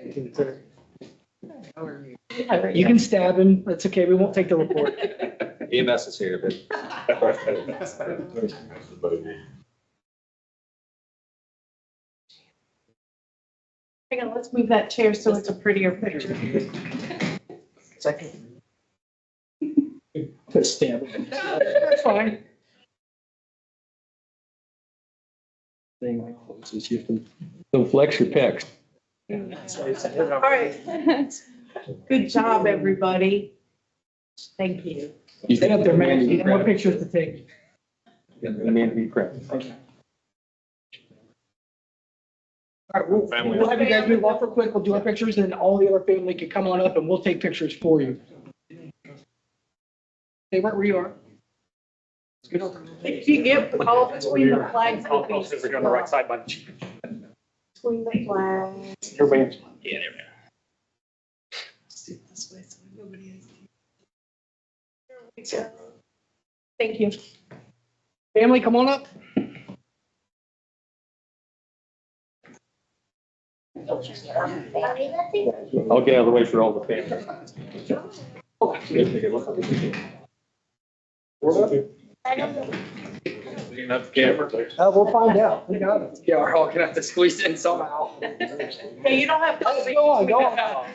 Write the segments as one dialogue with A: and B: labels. A: taken, sir.
B: How are you?
A: You can stab him. That's okay. We won't take the report.
C: EMS is here, but
D: Hang on, let's move that chair so it's a prettier picture.
B: Second.
A: Put a stab. in him.
B: That's fine.
A: Thing like this is you can-
E: Don't flex your pecs.
D: All right. Good job, everybody. Thank you.
E: You
A: Stay up there, man. You
E: You
A: have more pictures to take.
E: Man, be crap.
A: All right, we'll,
C: Family.
A: we'll have you guys move off real quick. We'll do our pictures and then all the other family can come on up and we'll take pictures for you. Stay right where you are. It's good.
D: If you get all between the flags. it'll be-
C: side by the chief.
D: Between the flags.
A: Everybody.
C: Yeah, there we are.
D: Thank you.
A: Family, come on up.
E: I'll get out of the way for all the family.
C: Enough camera.
A: Uh, we'll find out. We got it. Yeah, we're all gonna have to squeeze in somehow.
D: Hey, you don't have.
A: Go on, go on.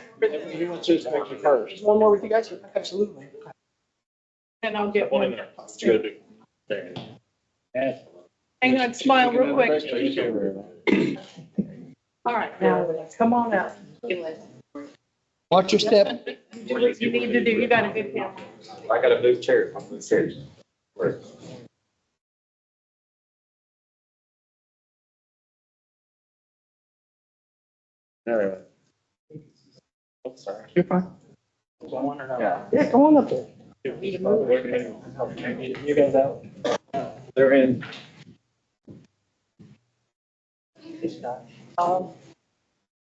E: He wants his picture first.
A: Just one more with you guys? Absolutely.
D: And I'll get
C: One in
D: one.
C: there. Good. There.
D: Hang on, smile real quick. All right, now, come on up.
A: Watch your step.
D: Do what you need to do. You got a good camera.
C: I gotta move chairs. I'm serious. Where? There.
A: You're fine. Yeah, come on up there.
C: You guys out? They're in.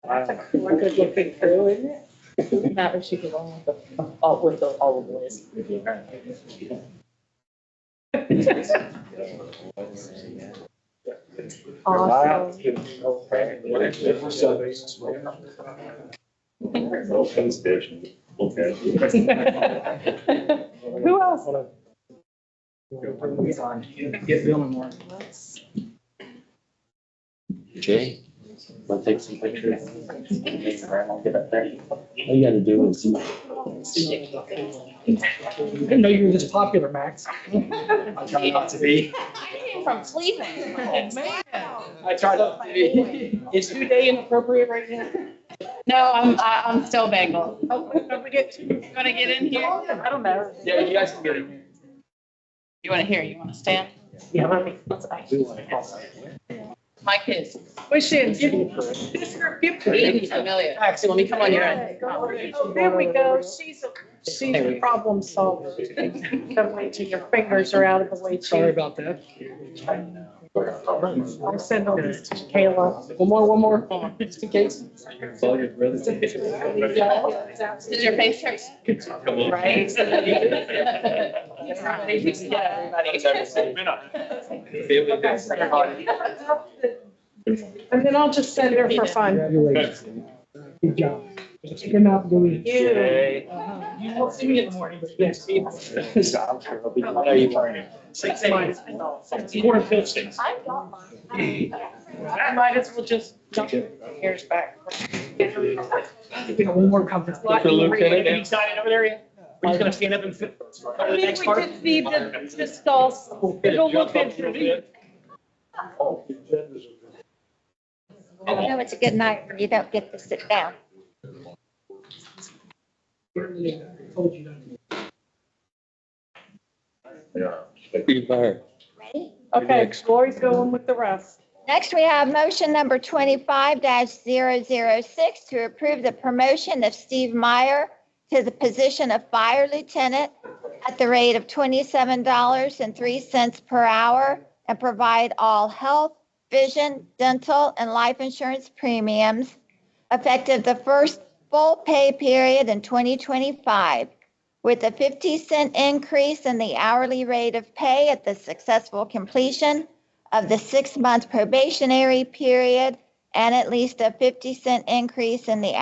B: We're good looking through, isn't it? Not if she could only, all with the, all of the list. Awesome.
D: Who else?
A: Get Bill and Warren.
F: Jay, wanna take some pictures? All you gotta do is,
A: Didn't know you were this popular, Max.
G: I try not to be.
B: From Cleveland.
D: Oh,
G: I try not to be.
A: Is your day inappropriate right now?
G: No, I'm, I- I'm still Bengal.
D: Oh, don't forget, you wanna get in here? I don't know.
G: Yeah, you guys can get it. You want to hear, you want to stand?
B: Yeah, let me, let's- I-
G: My kids.
D: Wish it, give, this girl, give me.
G: Amelia.
A: Axel, let me
B: come on your end.
D: Oh, There we go, she's a, she's a problem solver. Come wait till your fingers are out of the way,
A: Sorry
D: too.
A: about that.
D: I'll send all this to Kayla.
A: One more, one more, just in case.
G: Did your face hurt?
C: Come on.
G: Right?
C: Family days.
D: And then I'll just send her for fun.
A: Congratulations. Good job. Good job, Louis.
D: You,
G: Uh-huh.
A: You won't see me in the morning, but yes.
D: six months.
A: More efficient.
D: I might as well just jump hairs back.
A: We got one more conference.
E: For Luke, can I dance?
A: Excited over there yet? We're just gonna stand up and fit.
D: I think we just need to just all, it'll look into me.
H: I know it's a good night when you don't get to sit down.
A: Told you not to.
E: Be fired.
H: Ready?
D: Okay, Lori's going with the rest.
H: Next, we have motion number twenty-five 6 to approve the promotion of Steve Meyer to the position of fire lieutenant at the rate of twenty-seven dollars and three cents per hour and provide all health, vision, dental, and life insurance premiums effective the first full pay period in twenty twenty-five with a fifty cent increase in the hourly rate of pay at the successful completion of the six-month probationary period and at least a 50 cent increase in the